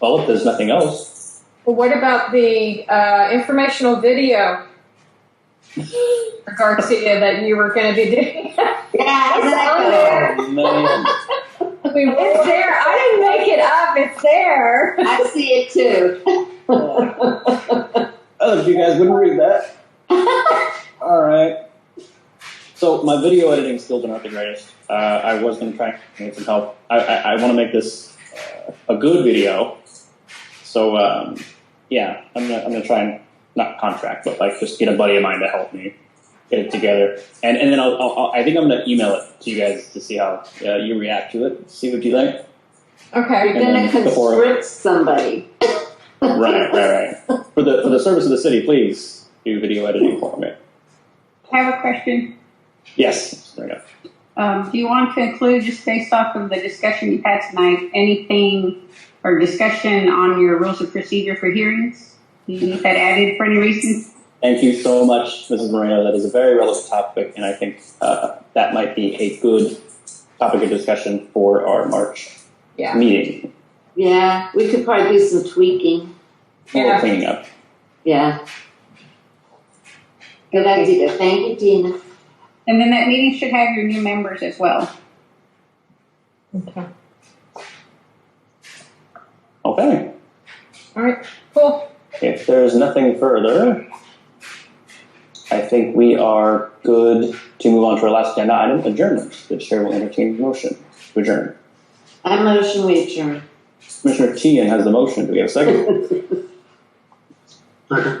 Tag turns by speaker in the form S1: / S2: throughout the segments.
S1: Well, if there's nothing else,
S2: Well, what about the uh, informational video for Garcia that you were going to be doing?
S3: Yeah,
S2: on
S3: exactly.
S2: there.
S1: oh, man.
S2: I mean, it's there. I didn't make it up. It's there.
S3: I see it too.
S1: Oh, if you guys wouldn't read that. All right. So my video editing skills are not the greatest. Uh, I was going to try and get some help. I, I, I want to make this uh, a good video. So um, yeah, I'm gonna, I'm gonna try and not contract, but like just get a buddy of mine to help me get it together, and and then I'll, I'll, I'll I think I'm gonna email it to you guys to see how uh, you react to it, see what you like.
S2: Okay.
S3: You're gonna
S1: And then the forum.
S3: constrict somebody.
S1: Right, right, right. For the for the service of the city, please do video editing for me.
S4: I have a question.
S1: Yes, there we go.
S4: Um, do you want to include, just based off of the discussion you've had tonight, anything or discussion on your rules of procedure for hearings? Do you need that added for any reason?
S1: Thank you so much, Mrs. Moreno. That is a very relevant topic, and I think uh, that might be a good topic of discussion for our March
S2: Yeah.
S1: meeting.
S3: Yeah, we could probably do some tweaking.
S1: More
S2: Yeah.
S1: cleaning up.
S3: Yeah. Good idea. Thank you, Dina.
S4: And then that meeting should have your new members as well.
S2: Okay.
S1: Okay.
S2: All right. Cool.
S1: If there is nothing further, I think we are good to move on to our last agenda item, adjournment. The chair will entertain the motion to adjourn.
S3: I motion we adjourn.
S1: Commissioner Teehan has the motion. Do we have a second?
S5: Second.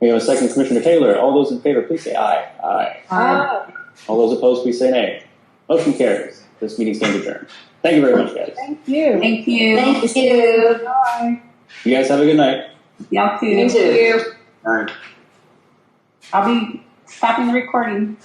S1: We have a second. Commissioner Taylor. All those in favor, please say aye. Aye.
S2: Uh,
S1: All those opposed, please say nay. Motion carries. This meeting stands adjourned. Thank you very much, guys.
S2: thank you.
S4: Thank you.
S3: Thank you.
S2: Bye.
S1: You guys have a good night.
S4: Y'all too.
S3: You too.
S2: you.
S5: All right.
S4: I'll be stopping the recording.